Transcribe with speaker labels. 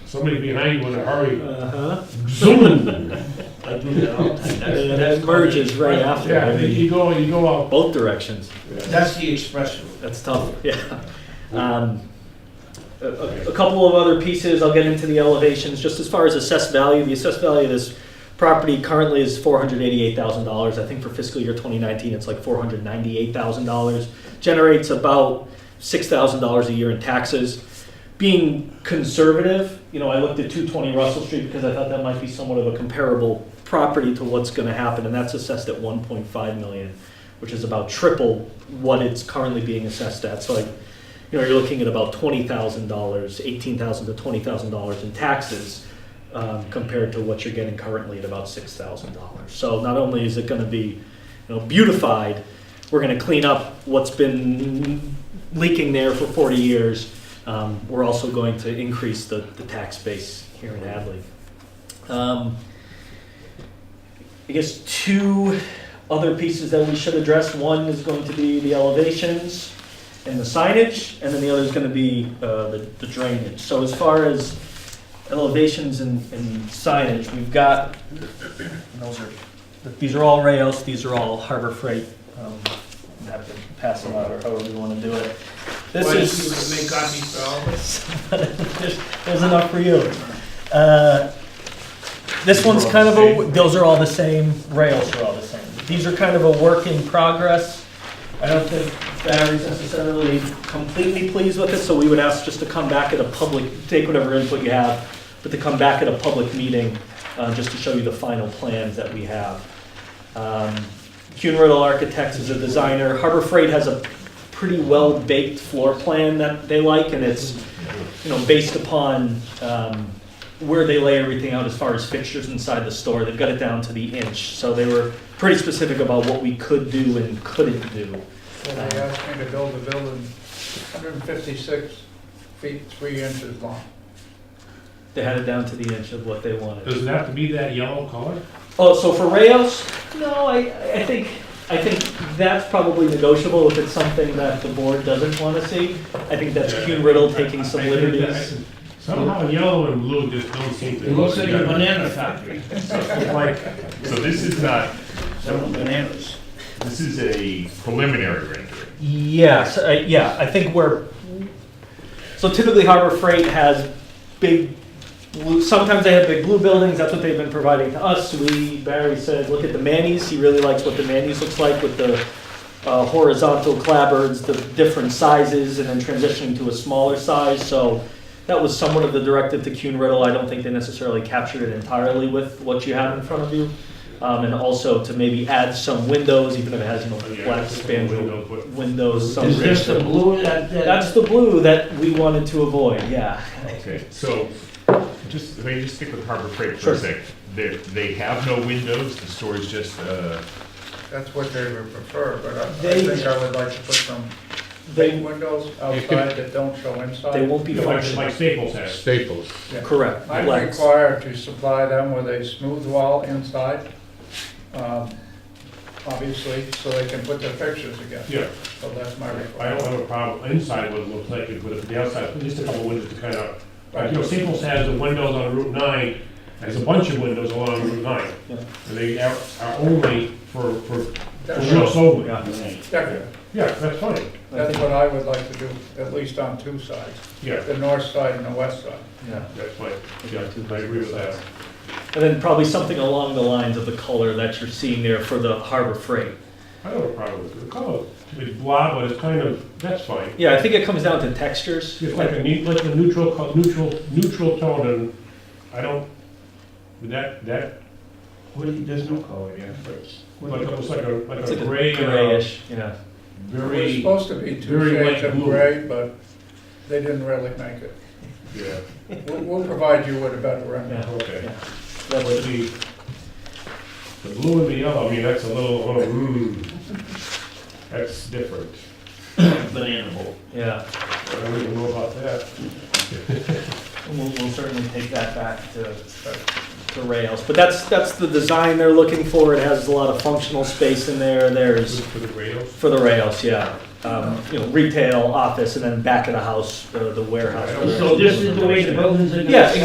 Speaker 1: somebody behind you in a hurry,
Speaker 2: Uh-huh.
Speaker 1: zooming. I do that all the time.
Speaker 2: And that merges right after.
Speaker 1: Yeah,
Speaker 2: I mean,
Speaker 1: you go, you go out.
Speaker 2: Both directions.
Speaker 3: That's the expression.
Speaker 2: That's tough, yeah. Um, A a- a couple of other pieces, I'll get into the elevations, just as far as assessed value, the assessed value of this property currently is four hundred eighty-eight thousand dollars, I think for fiscal year twenty nineteen, it's like four hundred ninety-eight thousand dollars. Generates about six thousand dollars a year in taxes. Being conservative, you know, I looked at two twenty Russell Street because I thought that might be somewhat of a comparable property to what's gonna happen, and that's assessed at one point five million which is about triple what it's currently being assessed at. So, like, you know, you're looking at about twenty thousand dollars, eighteen thousand to twenty thousand dollars in taxes um, compared to what you're getting currently at about six thousand dollars. So, not only is it going to be, you know, beautified, we're going to clean up what's been leaking there for forty years. Um, we're also going to increase the, the tax base here in Hadley. Um, I guess two other pieces that we should address. One is going to be the elevations and the signage, and then the other is going to be uh, the the drainage. So as far as elevations and and signage, we've got, and those are, these are all Rayos, these are all Harbor Freight. um, I'm Happy to pass them out, or however you want to do it. This
Speaker 3: Why don't
Speaker 2: is.
Speaker 3: you Make copies for all of us.
Speaker 2: There's there's enough for you. Uh, This one's kind of a, those are all the same, rails are all the same. These are kind of a work in progress. I don't think Barry's necessarily completely pleased with it, so we would ask just to come back at a public, take whatever input you have, but to come back at a public meeting, uh, just to show you the final plans that we have. Um, Kuhn Riddle Architects is a designer. Harbor Freight has a pretty well-baked floor plan that they like, and it's you know, based upon um, where they lay everything out as far as fixtures inside the store, they've got it down to the inch. So they were pretty specific about what we could do and couldn't do.
Speaker 4: So they asked me to build a building 156 feet, 3 inches long.
Speaker 2: They had it down to the inch of what they wanted.
Speaker 1: Does it have to be that yellow color?
Speaker 2: Oh, so for Rayos, no, I, I think, I think that's probably negotiable if it's something that the board doesn't want to see. I think that's Kuhn Riddle taking
Speaker 1: I-
Speaker 2: some
Speaker 1: I think that-
Speaker 2: liberties.
Speaker 1: Somehow yellow and blue just don't seem to.
Speaker 3: It looks like a
Speaker 1: together.
Speaker 3: banana factory,
Speaker 1: Like,
Speaker 5: So this is not,
Speaker 3: selling bananas.
Speaker 5: this is a preliminary rendering.
Speaker 2: Yes, uh, yeah, I think we're, so typically Harbor Freight has big, blue- sometimes they have big blue buildings, that's what they've been providing to us. We, Barry said, look at the Manny's, he really likes what the Manny's looks like with the uh, horizontal clapboards, the different sizes, and then transitioning to a smaller size, so that was somewhat of the directive to Kuhn Riddle. I don't think they necessarily captured it entirely with what you have in front of you. Um, and also to maybe add some windows, even if it has, you know,
Speaker 1: Yeah,
Speaker 2: black
Speaker 1: just a
Speaker 2: spandrel
Speaker 1: window put-
Speaker 2: windows
Speaker 3: Is this the
Speaker 2: somewhere.
Speaker 3: blue that,
Speaker 2: That's
Speaker 3: that,
Speaker 2: the blue that we wanted to avoid, yeah.
Speaker 5: Okay, so just, if I just stick with Harbor Freight for
Speaker 2: Sure.
Speaker 5: a sec. They, they have no windows, the store is just, uh,
Speaker 4: That's what they would prefer, but I I
Speaker 2: They-
Speaker 4: think I would like to put some big
Speaker 2: They,
Speaker 4: windows outside that don't show inside.
Speaker 2: they won't be
Speaker 1: like like
Speaker 2: functional.
Speaker 1: Staples has.
Speaker 6: Staples.
Speaker 4: Yeah.
Speaker 2: Correct.
Speaker 4: I'm
Speaker 2: Lex.
Speaker 4: required to supply them with a smooth wall inside, um, obviously, so they can put their pictures again.
Speaker 1: Yeah,
Speaker 4: So that's my
Speaker 1: I
Speaker 4: requirement.
Speaker 1: don't have a problem inside what it looks like, but if the outside, just a couple windows to kind of, like, you know, Staples has the windows on Route nine, has a bunch of windows along Route nine.
Speaker 2: Yeah.
Speaker 1: And they are, are only for, for, for
Speaker 4: That's-
Speaker 1: real
Speaker 2: Oh,
Speaker 1: solely.
Speaker 4: Decorative.
Speaker 1: Yeah, that's fine,
Speaker 4: That's what I would like to do, at least on two sides,
Speaker 1: yeah,
Speaker 4: the north side and the west side.
Speaker 2: Yeah.
Speaker 1: that's fine, yeah, I agree with that.
Speaker 2: And then probably something along the lines of the color that you're seeing there for the Harbor Freight.
Speaker 1: I don't have a problem with the color, it's blah, but it's kind of, that's fine.
Speaker 2: Yeah, I think it comes down to textures.
Speaker 1: It's like a neat, like a neutral, co- neutral, neutral tone, and I don't, that, that, oh,
Speaker 3: what do you- there's no color, yeah.
Speaker 1: like, almost like a, like
Speaker 2: It's
Speaker 1: a
Speaker 2: like a
Speaker 1: gray, uh, and a
Speaker 2: grayish, you know.
Speaker 4: It was
Speaker 1: very,
Speaker 4: supposed to be two
Speaker 1: very
Speaker 4: shades
Speaker 1: light
Speaker 4: of
Speaker 1: blue.
Speaker 4: gray, but they didn't really make it.
Speaker 1: yeah,
Speaker 4: We'll, we'll provide you with a better rendering.
Speaker 2: Yeah.
Speaker 1: okay.
Speaker 2: That
Speaker 1: But
Speaker 2: was-
Speaker 1: the, the blue and the yellow, I mean, that's a little, oh, mm, that's different.
Speaker 3: Banana bowl.
Speaker 2: Yeah,
Speaker 1: I don't even know about that.
Speaker 2: we'll, we'll certainly take that back to,
Speaker 4: But
Speaker 2: to Rails. But that's, that's the design they're looking for. It has a lot of functional space in there. There's
Speaker 1: For the rails,
Speaker 2: For the rails, yeah. Um, you know, retail, office, and then back of the house, the, the warehouse.
Speaker 3: So this is the way the buildings are. gonna
Speaker 2: Yeah,
Speaker 3: sit?